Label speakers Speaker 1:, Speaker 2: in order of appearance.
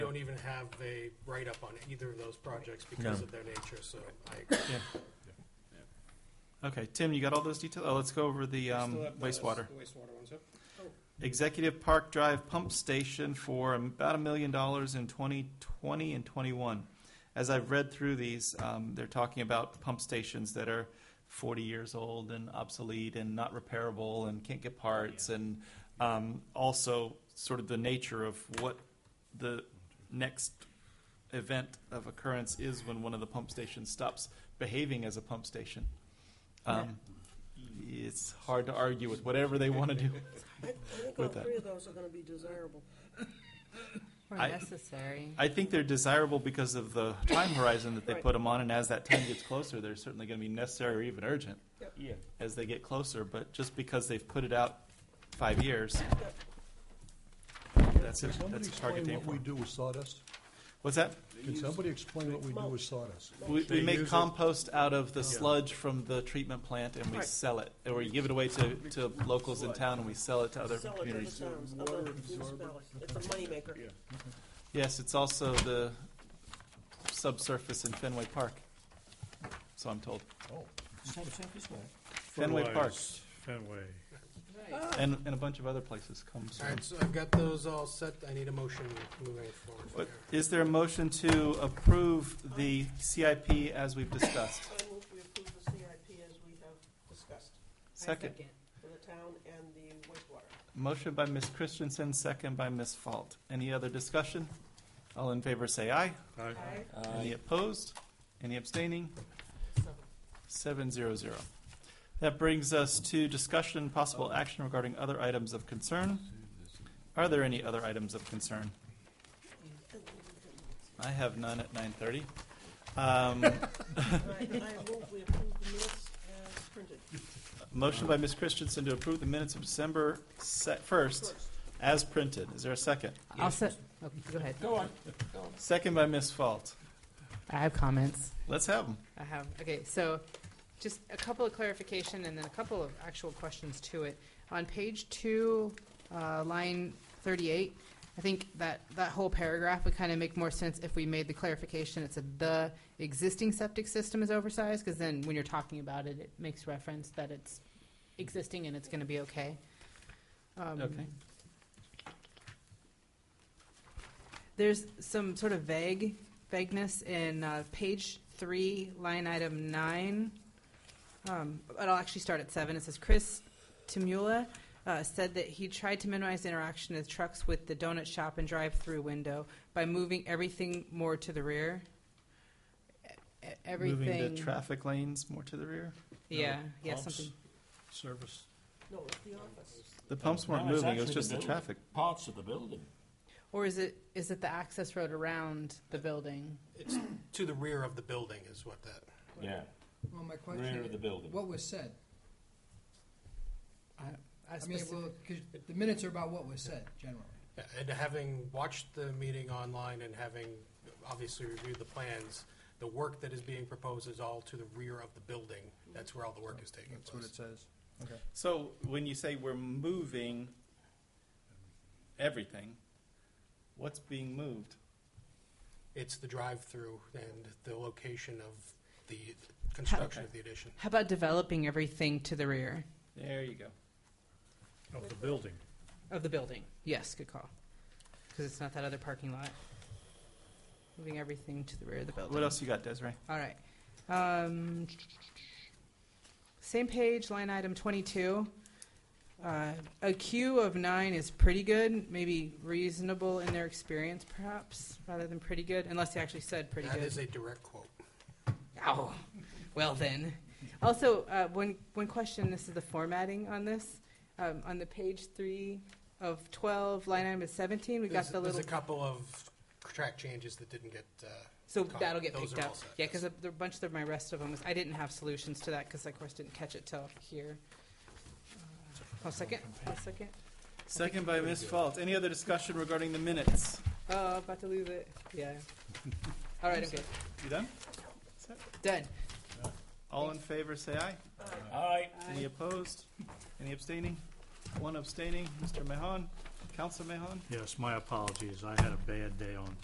Speaker 1: don't even have a write-up on either of those projects because
Speaker 2: No.
Speaker 1: of their nature, so I agree.
Speaker 3: Okay, Tim, you got all those details? Oh, let's go over the um,
Speaker 1: Still have the-
Speaker 3: wastewater.
Speaker 1: the Wastewater ones, yep.
Speaker 3: Executive Park Drive Pump Station for about a million dollars in 2020 and 21. As I've read through these, um, they're talking about pump stations that are 40 years old and obsolete and not repairable and can't get parts, and um, also sort of the nature of what the next event of occurrence is when one of the pump stations stops behaving as a pump station. Um, It's hard to argue with whatever they want to do.
Speaker 4: I, I think all
Speaker 3: With that.
Speaker 4: three of those are gonna be desirable.
Speaker 5: Or
Speaker 3: I-
Speaker 5: necessary.
Speaker 3: I think they're desirable because of the time horizon that they
Speaker 4: Right.
Speaker 3: put them on, and as that time gets closer, they're certainly going to be necessary or even urgent
Speaker 2: Yeah.
Speaker 3: as they get closer. But just because they've put it out five years, that's a,
Speaker 6: Can somebody
Speaker 3: that's a target
Speaker 6: explain
Speaker 3: date
Speaker 6: what
Speaker 3: for.
Speaker 6: we
Speaker 3: 'em.
Speaker 6: do with sawdust?
Speaker 3: What's that?
Speaker 6: Can somebody explain what we do with sawdust?
Speaker 3: We, we
Speaker 1: They
Speaker 3: make
Speaker 1: use it-
Speaker 3: compost out of the
Speaker 1: Yeah.
Speaker 3: sludge from the treatment plant, and we
Speaker 4: Right.
Speaker 3: sell it, or we give it away to, to locals in town, and we sell it to other
Speaker 4: Sell it to the
Speaker 3: communities.
Speaker 4: towns, other municipalities. It's a moneymaker.
Speaker 3: Yes, it's also the subsurface in Fenway Park. So I'm told.
Speaker 6: Oh,
Speaker 3: Fenway Park
Speaker 7: Fertilized Fenway.
Speaker 3: and, and a bunch of other places comes
Speaker 1: All
Speaker 3: from.
Speaker 1: right, so I've got those all set. I need a motion moving forward. from
Speaker 3: But
Speaker 1: here.
Speaker 3: Is there a motion to approve the CIP as we've discussed?
Speaker 4: I move we approve the CIP as we have discussed
Speaker 3: Second,
Speaker 4: for the town and the wastewater.
Speaker 3: motion by Ms. Christensen, second by Ms. Fault. Any other discussion? All in favor say aye.
Speaker 7: Aye.
Speaker 4: Aye.
Speaker 3: Any opposed? Any abstaining? Seven zero zero. That brings us to discussion, and possible action regarding other items of concern. Are there any other items of concern? I have none at nine thirty. Um,
Speaker 4: I, I move we approve the minutes as printed.
Speaker 3: motion by Ms. Christensen to approve the minutes of December se- first as printed. Is there a second?
Speaker 5: I'll set, okay, go ahead.
Speaker 3: Second by Ms. Fault.
Speaker 5: I have comments.
Speaker 3: Let's have them.
Speaker 5: I have, okay, so just a couple of clarification and then a couple of actual questions to it. On page two, uh, line thirty-eight, I think that, that whole paragraph would kind of make more sense if we made the clarification. It said the existing septic system is oversized, because then when you're talking about it, it makes reference that it's existing and it's going to be okay. Um,
Speaker 3: Okay.
Speaker 5: There's some sort of vague vagueness in uh, page three, line item nine. Um, but I'll actually start at seven. It says Chris Timula uh, said that he tried to minimize interaction of trucks with the donut shop and drive-through window by moving everything more to the rear. E- e- Everything.
Speaker 3: Moving the traffic lanes more to the rear.
Speaker 5: Yeah. Yeah.
Speaker 7: Pumps,
Speaker 5: Something.
Speaker 7: Service.
Speaker 4: No, it's the office.
Speaker 3: The pumps
Speaker 2: Uh, No,
Speaker 3: weren't
Speaker 2: it's
Speaker 3: moving, it was
Speaker 2: actually the
Speaker 3: just the
Speaker 2: building.
Speaker 3: traffic.
Speaker 2: Parts of the building.
Speaker 5: Or is it is it the access road around the building?
Speaker 1: It's to the rear of the building is what that,
Speaker 2: Yeah,
Speaker 8: Well, my
Speaker 2: rear of the
Speaker 8: question,
Speaker 2: building.
Speaker 8: what was said?
Speaker 5: I
Speaker 8: I mean, well, 'cause the minutes are about what was said, generally.
Speaker 1: Yeah, and having watched the meeting online and having obviously reviewed the plans, the work that is being proposed is all to the rear of the building. That's where all the work is taking
Speaker 6: that's what
Speaker 1: place.
Speaker 6: it says. Okay.
Speaker 3: So when you say we're moving everything, what's being moved?
Speaker 1: It's the drive-through and the location of the construction of the addition.
Speaker 5: How about developing everything to the rear
Speaker 3: There you go.
Speaker 7: Of the building.
Speaker 5: of the building? Yes, good call. Because it's not that other parking lot. Moving everything to the rear of the building.
Speaker 3: What else you got, Desiree?
Speaker 5: All right. Um, same page, line item 22. Uh, a queue of nine is pretty good, maybe reasonable in their experience, perhaps, rather than pretty good, unless they actually said pretty
Speaker 1: That
Speaker 5: good.
Speaker 1: is a direct quote.
Speaker 5: Oh, well then. Also, uh, one, one question, this is the formatting on this. Um, on the page three of twelve, line item is seventeen, we got
Speaker 1: There's
Speaker 5: the
Speaker 1: there's
Speaker 5: little,
Speaker 1: a couple of track changes that didn't get, uh,
Speaker 5: so
Speaker 1: copy.
Speaker 5: that'll get
Speaker 1: Those
Speaker 5: picked
Speaker 1: are all
Speaker 5: up.
Speaker 1: set,
Speaker 5: Yeah,
Speaker 1: yes.
Speaker 5: because a the bunch of my rest of them, was- I didn't have solutions to that, because I, of course, didn't catch it till here. Uh, One second, one second.
Speaker 3: Second by Ms. Fault. Any other discussion regarding the minutes?
Speaker 5: Oh, about to lose it, yeah. All right, I'm good,
Speaker 3: You done?
Speaker 5: done.
Speaker 3: All in favor, say aye.
Speaker 2: Aye.
Speaker 3: Any opposed? Any abstaining? One abstaining. Mr. Mahon, Council Mahon?
Speaker 7: Yes, my apologies. I had a bad day on